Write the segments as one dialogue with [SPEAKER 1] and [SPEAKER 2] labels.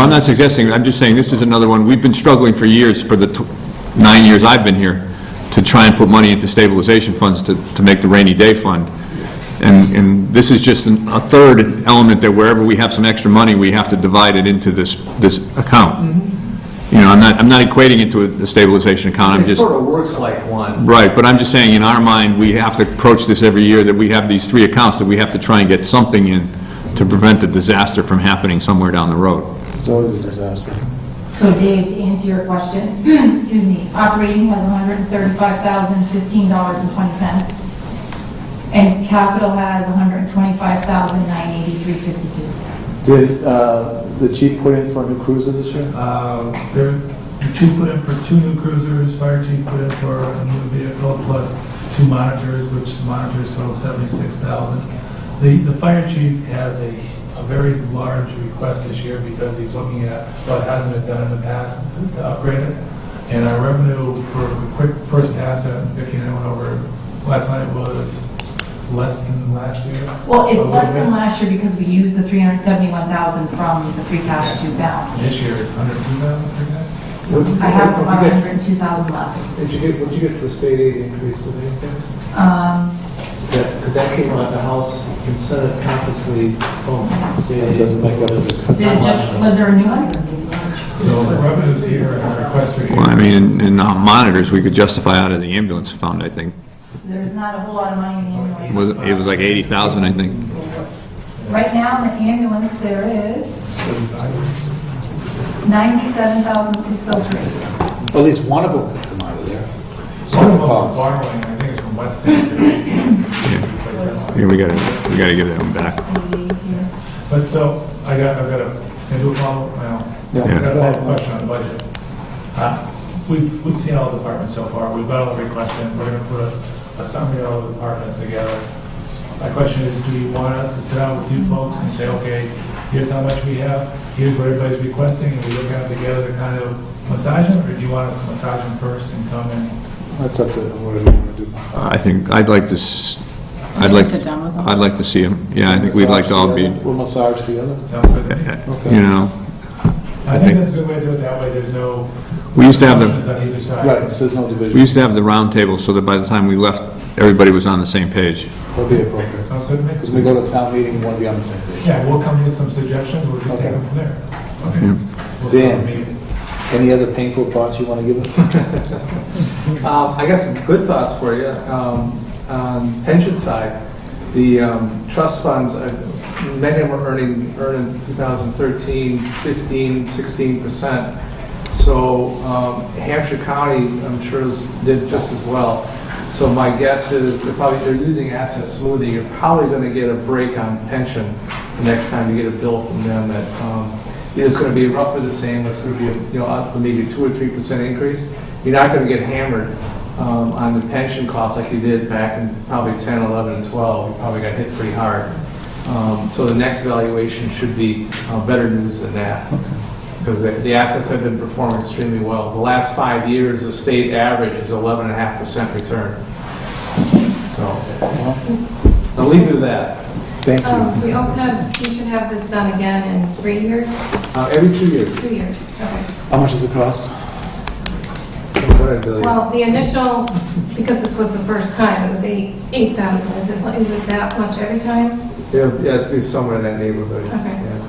[SPEAKER 1] I'm not suggesting, I'm just saying, this is another one, we've been struggling for years, for the tw- nine years I've been here, to try and put money into stabilization funds to, to make the rainy day fund. And, and this is just an- a third element that wherever we have some extra money, we have to divide it into this, this account. You know, I'm not, I'm not equating it to a- a stabilization account, I'm
[SPEAKER 2] It
[SPEAKER 1] just,
[SPEAKER 2] sort of works like one.
[SPEAKER 1] right, but I'm just saying, in our mind, we have to approach this every year, that we have these three accounts, that we have to try and get something in to prevent a disaster from happening somewhere down the road.
[SPEAKER 3] It's always a disaster.
[SPEAKER 4] So Dave, to answer your question, excuse me, operating has $135,015.20. And capital has $125,983.52.
[SPEAKER 3] Did uh, the chief put in for a new cruiser this year?
[SPEAKER 5] Uh, There, the chief put in for two new cruisers, fire chief put in for a new vehicle, plus two monitors, which the monitors total seventy-six thousand. The, the fire chief has a, a very large request this year because he's looking at what hasn't been done in the past to upgrade it. And our revenue for a quick first pass at Vicki and I went over last night was less than last year.
[SPEAKER 4] Well, it's
[SPEAKER 5] A
[SPEAKER 4] less
[SPEAKER 5] little
[SPEAKER 4] than
[SPEAKER 5] bit.
[SPEAKER 4] last year because we used the 371,000 from the free cash to balance.
[SPEAKER 5] This year is hundred two thousand, I think.
[SPEAKER 4] I have about 102,000 left.
[SPEAKER 3] Did you get, what did you get for state aid increase of anything?
[SPEAKER 4] Um,
[SPEAKER 2] Because that came out of the House in Senate conference we, oh,
[SPEAKER 3] It doesn't make up for
[SPEAKER 4] Did it just, was there a new one?
[SPEAKER 5] So the revenues here and our requests are here.
[SPEAKER 1] Well, I mean, in uh, monitors, we could justify out of the ambulance fund, I think.
[SPEAKER 4] There's not a whole lot of money in the ambulance.
[SPEAKER 1] It was it was like 80,000, I think.
[SPEAKER 4] Right now, in the ambulance, there is 97,603.
[SPEAKER 6] At least one of them could come out of there.
[SPEAKER 5] Some
[SPEAKER 6] Some
[SPEAKER 5] of
[SPEAKER 6] the
[SPEAKER 5] them are
[SPEAKER 6] cost.
[SPEAKER 5] borrowing, I think it's from West State. they're basically-
[SPEAKER 1] Yeah, we gotta, we gotta give that one back.
[SPEAKER 5] But so, I got, I got a, I do a follow, well, I got a follow question on the budget. Uh, We've, we've seen all the departments so far, we've got all the requests in, we're gonna put a- a summary of all the departments together. My question is, do you want us to sit down with you folks and say, okay, here's how much we have, here's what everybody's requesting, and we look at it together to kind of massage them, or do you want us to massage them first and come in?
[SPEAKER 3] That's up to whatever you want to do.
[SPEAKER 1] I think, I'd like to, s- I'd like, I'd like to see them. Yeah, I think we'd like to all be,
[SPEAKER 3] We'll massage together.
[SPEAKER 5] Sound good to me?
[SPEAKER 1] you know,
[SPEAKER 5] I think that's a good way to do it, that way there's no.
[SPEAKER 1] We used to have the-
[SPEAKER 5] Options on either side.
[SPEAKER 3] Right, so there's no
[SPEAKER 1] we
[SPEAKER 3] division.
[SPEAKER 1] used to have the round table so that by the time we left, everybody was on the same page.
[SPEAKER 3] That'll be appropriate.
[SPEAKER 5] Sounds good to
[SPEAKER 3] Because
[SPEAKER 5] me?
[SPEAKER 3] we go to town meeting, we want to be on the same page.
[SPEAKER 5] Yeah, we'll come with some suggestions, we'll just take them from there. Okay. We'll start the meeting.
[SPEAKER 3] Any other painful thoughts you want to give us?
[SPEAKER 7] Um, I got some good thoughts for you. Um, on pension side, the um, trust funds, uh, many of them are earning, earning 2013, 15, 16 percent. So um, Hampshire County, I'm sure, is- did just as well. So my guess is they're probably, they're using asset smoothing. You're probably going to get a break on pension the next time you get a bill from them that um, it's going to be roughly the same, it's going to be, you know, up to maybe 2 or 3% increase. You're not going to get hammered um, on the pension costs like you did back in probably 10, 11, and 12. You probably got hit pretty hard. Um, So the next valuation should be uh, better news than that, because the the assets have been performing extremely well. The last five years, the state average is 11.5% return. So, I'll leave you with that.
[SPEAKER 3] Thank
[SPEAKER 8] Um,
[SPEAKER 3] you.
[SPEAKER 8] we hope that we should have this done again in three years,
[SPEAKER 7] Uh, Every two years.
[SPEAKER 8] two years, okay.
[SPEAKER 3] How much does it cost?
[SPEAKER 7] What did I tell you?
[SPEAKER 8] Well, the initial, because this was the first time, it was eight, eight thousand, is it, is it that much every time?
[SPEAKER 7] Yeah, yeah, it's be somewhere in that neighborhood.
[SPEAKER 8] Okay.
[SPEAKER 7] yeah.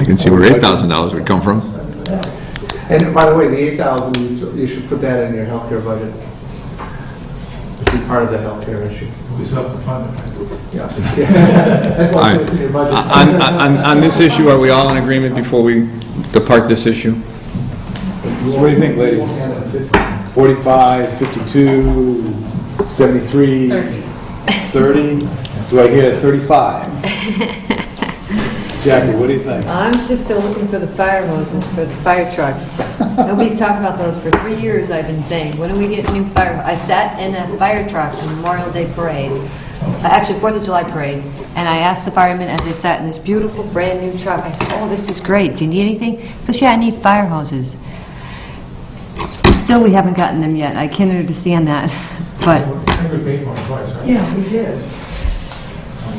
[SPEAKER 1] I can see where $8,000 would come from.
[SPEAKER 7] And by the way, the 8,000, you s- you should put that in your healthcare budget. It should be part of the healthcare issue.
[SPEAKER 5] We self-fund it.
[SPEAKER 7] Yeah. That's why it's in your budget.
[SPEAKER 1] On, on, on this issue, are we all in agreement before we depart this issue?
[SPEAKER 3] So what do you think, ladies? 45, 52, 73? 30. 30? Do I hear 35? Jackie, what do you think?
[SPEAKER 9] I'm just still looking for the fire hoses for the fire trucks. Nobody's talking about those for three years, I've been saying, when are we getting new fire? I sat in a fire truck in Memorial Day Parade, uh, actually Fourth of July Parade, and I asked the firemen as they sat in this beautiful, brand-new truck, I said, "Oh, this is great, do you need anything?" He goes, "Yeah, I need fire hoses." Still, we haven't gotten them yet, I can't understand that,
[SPEAKER 5] I
[SPEAKER 9] but,
[SPEAKER 5] think we paid for it twice, right?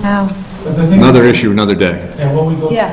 [SPEAKER 9] no.
[SPEAKER 5] But the thing-
[SPEAKER 1] Another issue, another day.
[SPEAKER 5] And when we go
[SPEAKER 9] Yeah.